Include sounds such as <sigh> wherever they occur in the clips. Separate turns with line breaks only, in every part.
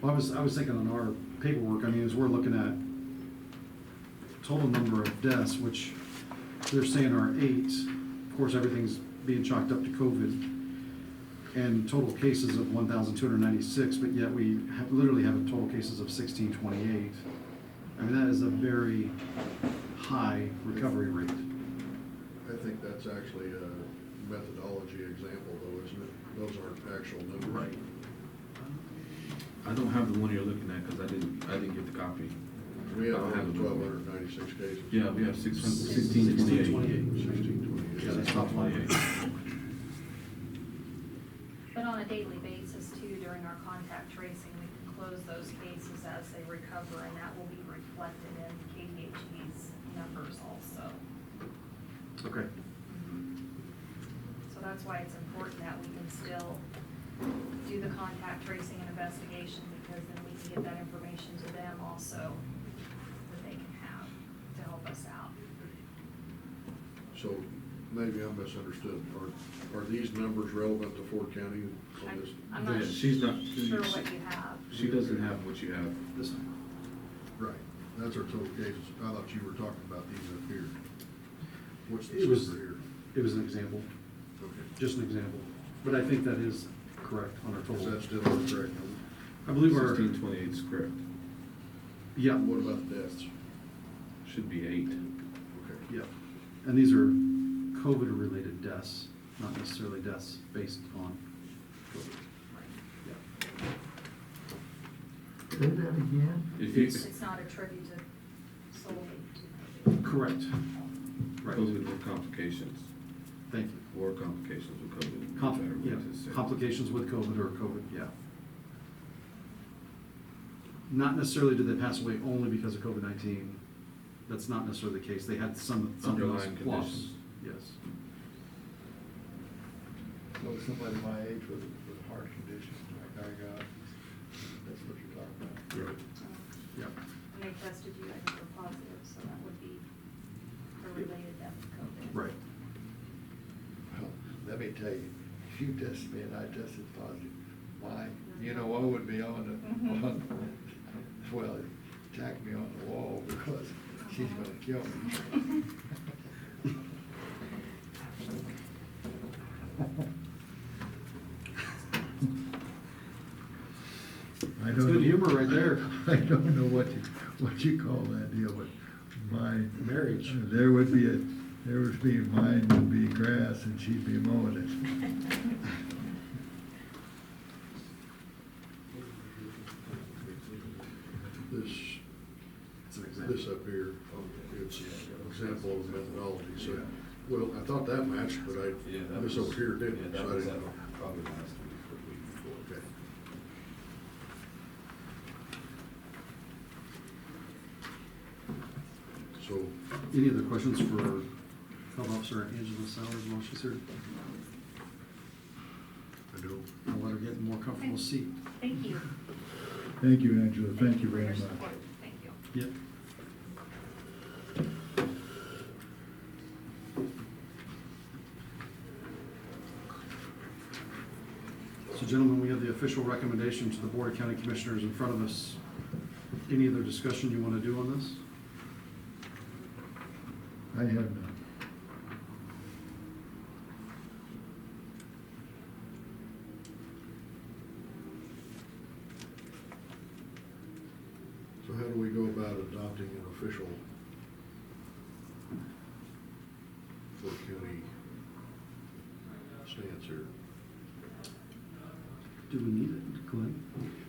Well, I was, I was thinking on our paperwork, I mean, as we're looking at total number of deaths, which they're saying are eight, of course, everything's being chalked up to COVID, and total cases of one thousand two hundred ninety-six, but yet we have, literally have total cases of sixteen twenty-eight. I mean, that is a very high recovery rate.
I think that's actually a methodology example though, isn't it? Those aren't actual numbers.
Right. I don't have the one you're looking at, cause I didn't, I didn't get the copy.
We have
I don't have the
twelve
number.
hundred ninety-six cases.
Yeah, we have six hundred, sixteen
1628.
twenty-eight.
Sixteen twenty-eight.
Yeah, that's top line.
But on a daily basis too, during our contact tracing, we can close those cases as they recover, and that will be reflected in KDHE's numbers also.
Okay.
So that's why it's important that we can still do the contact tracing and investigation, because then we can get that information to them also, that they can have to help us out.
So maybe I misunderstood. Are, are these numbers relevant to Ford County
I-
on this?
I'm not
Yeah, she's not-
sure what you have.
She doesn't have what you have.
This time.
Right, that's our total cases. I thought you were talking about these up here. What's this
It was-
number here?
It was an example,
Okay.
just an example, but I think that is correct on our
Is
total.
that still the correct number?
I believe our,
Sixteen twenty-eight is correct,
yeah,
What about deaths?
should be eight.
Okay.
yeah. And these are COVID-related deaths, not necessarily deaths based on COVID. Yeah.
Say that again?
If you,
It's not attributed solely to. COVID.
Correct. Right.
those with no complications,
Thank you.
or complications with COVID.
Compl-
whichever one
yeah,
it is.
Complications with COVID or COVID, yeah. Not necessarily did they pass away only because of COVID-19. That's not necessarily the case. They had some, something else
Underlying
plus.
conditions.
Yes.
Well, somebody my age with, with a heart condition, like I got, that's what you're talking about.
Right. Yeah.
And they tested you, I think were positive, so that would be a related death to COVID.
Right.
Well, let me tell you, if you tested me and I tested positive, my, you know, what would be on the,
Mhm.
on, well, attack me on the wall because she's gonna kill
<laughs>
me.
I
It's
don't
good
know-
humor right there.
<laughs> I don't know what you, what you call that deal, but my. uh,
Marriage.
There would be a, there would be, mine would be grass and she'd be mowing it.
This
It's an example.
This up here, um, it's an example of methodology, so, well, I thought that matched, but
Yeah,
I,
that
this
was-
over here didn't,
Yeah,
so
that
I
was, uh,
didn't.
probably last week, or the week before.
Okay. So,
Any other questions for Health Officer Angela Sowers while she's here?
I do,
I'll let her get a more comfortable seat.
<laughs> Thank you.
Thank you, Angela, thank you
for
very
your
much.
support. Thank you.
Yep. So gentlemen, we have the official recommendation to the Board of County Commissioners in front of us. Any other discussion you want to do on this?
I have none.
so how do we go about adopting an official Fort County stance here?
Do we need it, Glenn?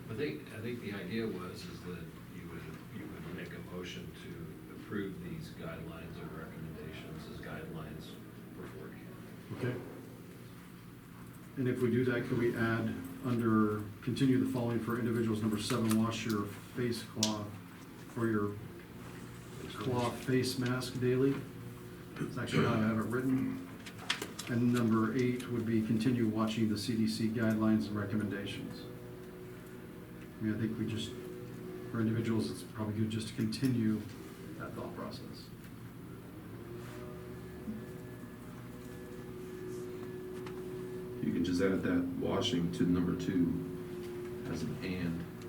I think, I think the idea was is that you would, you would make a motion to approve these guidelines or recommendations as guidelines for Ford County.
Okay. And if we do that, could we add under, continue the following for individuals, number seven, wash your face cloth or your cloth face mask daily? It's actually how I have it written. And number eight would be continue watching the CDC guidelines and recommendations. I mean, I think we just, for individuals, it's probably good just to continue that thought process.
You can just add that washing to number two as an and.